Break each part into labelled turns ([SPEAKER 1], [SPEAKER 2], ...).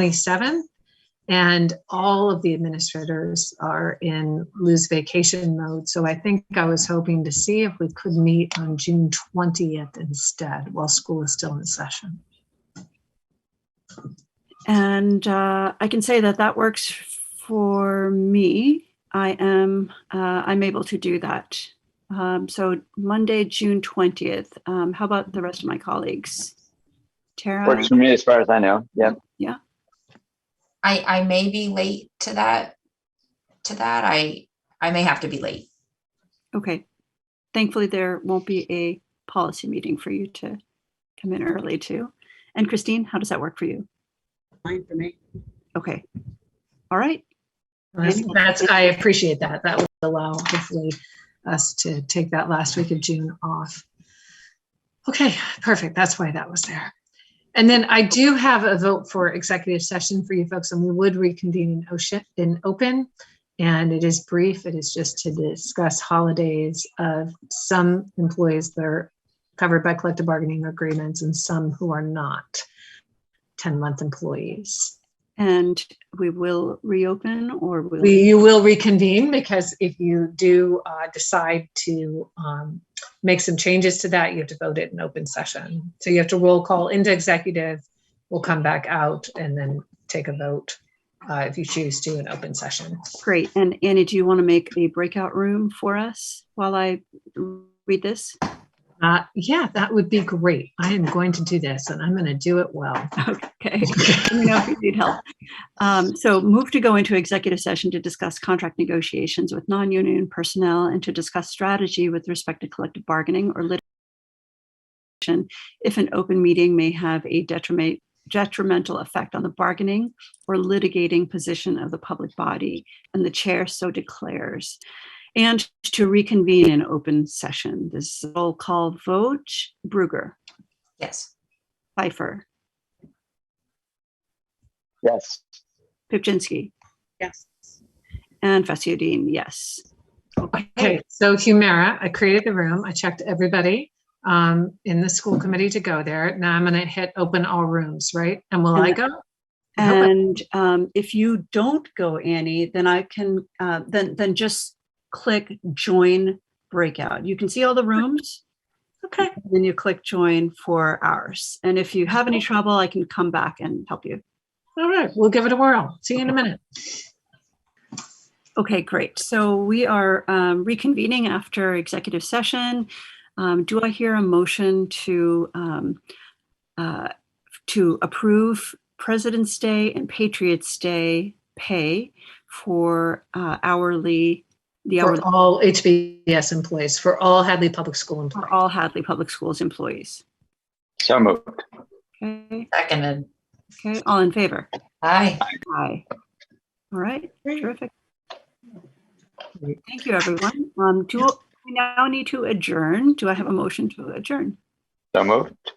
[SPEAKER 1] 27th. And all of the administrators are in lose vacation mode. So I think I was hoping to see if we could meet on June 20th instead while school is still in session.
[SPEAKER 2] And uh, I can say that that works for me. I am, uh, I'm able to do that. Um, So Monday, June 20th. Um, How about the rest of my colleagues? Tara?
[SPEAKER 3] Works for me as far as I know. Yeah.
[SPEAKER 4] I, I may be late to that, to that. I, I may have to be late.
[SPEAKER 2] Okay. Thankfully, there won't be a policy meeting for you to come in early to. And Christine, how does that work for you?
[SPEAKER 5] Fine for me.
[SPEAKER 2] Okay. All right.
[SPEAKER 1] That's, I appreciate that. That would allow hopefully us to take that last week of June off. Okay, perfect. That's why that was there. And then I do have a vote for executive session for you folks, and we would reconvene in OSHA in open. And it is brief. It is just to discuss holidays of some employees that are covered by collective bargaining agreements and some who are not 10-month employees.
[SPEAKER 2] And we will reopen or will?
[SPEAKER 1] We, you will reconvene because if you do uh, decide to um, make some changes to that, you have to vote it in open session. So you have to roll call into executive. We'll come back out and then take a vote uh, if you choose to in open session.
[SPEAKER 2] Great. And Annie, do you want to make a breakout room for us while I read this?
[SPEAKER 1] Uh, yeah, that would be great. I am going to do this and I'm going to do it well.
[SPEAKER 2] Okay. Let me know if you need help. Um, so move to go into executive session to discuss contract negotiations with non-union personnel and to discuss strategy with respect to collective bargaining or litigation if an open meeting may have a detriment, detrimental effect on the bargaining or litigating position of the public body and the chair so declares. And to reconvene in open session. This is a roll call vote. Bruger,
[SPEAKER 4] Yes.
[SPEAKER 2] Pfeiffer,
[SPEAKER 3] Yes.
[SPEAKER 2] Pipchinsky,
[SPEAKER 5] Yes.
[SPEAKER 2] and Fasciodine, yes.
[SPEAKER 1] Okay, so Humira, I created the room. I checked everybody um, in the school committee to go there. Now I'm going to hit open all rooms, right? And will I go? I hope I-
[SPEAKER 2] And um, if you don't go, Annie, then I can, uh, then, then just click join breakout. You can see all the rooms.
[SPEAKER 1] Okay.
[SPEAKER 2] and Then you click join for ours. And if you have any trouble, I can come back and help you.
[SPEAKER 1] All right, we'll give it a whirl. See you in a minute.
[SPEAKER 2] Okay, great. So we are um, reconvening after executive session. Um, Do I hear a motion to, um, uh, to approve President's Day and Patriots' Day pay for uh, hourly, the
[SPEAKER 1] For
[SPEAKER 2] hourly
[SPEAKER 1] all HBS employees, for all Hadley Public School
[SPEAKER 2] for
[SPEAKER 1] employees.
[SPEAKER 2] all Hadley Public Schools employees?
[SPEAKER 3] So moved.
[SPEAKER 2] Okay,
[SPEAKER 4] Seconded.
[SPEAKER 2] okay, all in favor?
[SPEAKER 4] Aye.
[SPEAKER 2] Aye. All right, terrific. Thank you, everyone. Um, Do, we now need to adjourn? Do I have a motion to adjourn?
[SPEAKER 3] So moved.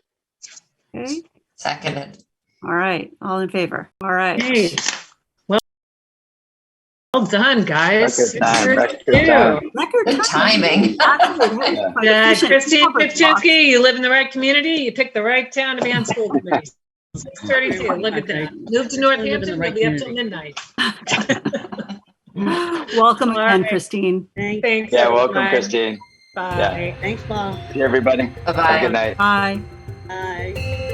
[SPEAKER 2] Okay,
[SPEAKER 4] Seconded.
[SPEAKER 2] all right, all in favor, all right.
[SPEAKER 1] Great. Well, well done, guys. Uh,
[SPEAKER 3] Record time, record
[SPEAKER 1] Six thirty-two.
[SPEAKER 3] time.
[SPEAKER 2] Record
[SPEAKER 4] Good timing.
[SPEAKER 2] Actually, that was quite
[SPEAKER 1] Yeah,
[SPEAKER 2] efficient.
[SPEAKER 1] Christine
[SPEAKER 2] Covered lots.
[SPEAKER 1] Pipchinsky, you live in the right community, you picked the right town to be on school committee. Six thirty-two, look at that. Move to Northampton, we'll be up till midnight.
[SPEAKER 2] Welcome
[SPEAKER 1] All
[SPEAKER 2] again,
[SPEAKER 1] right.
[SPEAKER 2] Christine.
[SPEAKER 5] Thanks,
[SPEAKER 1] Thanks.
[SPEAKER 3] Yeah, welcome,
[SPEAKER 1] everyone.
[SPEAKER 3] Christine.
[SPEAKER 1] Bye.
[SPEAKER 5] thanks, Paul.
[SPEAKER 3] See everybody. Have a
[SPEAKER 4] Bye-bye.
[SPEAKER 3] good night.
[SPEAKER 2] Bye.
[SPEAKER 5] Bye.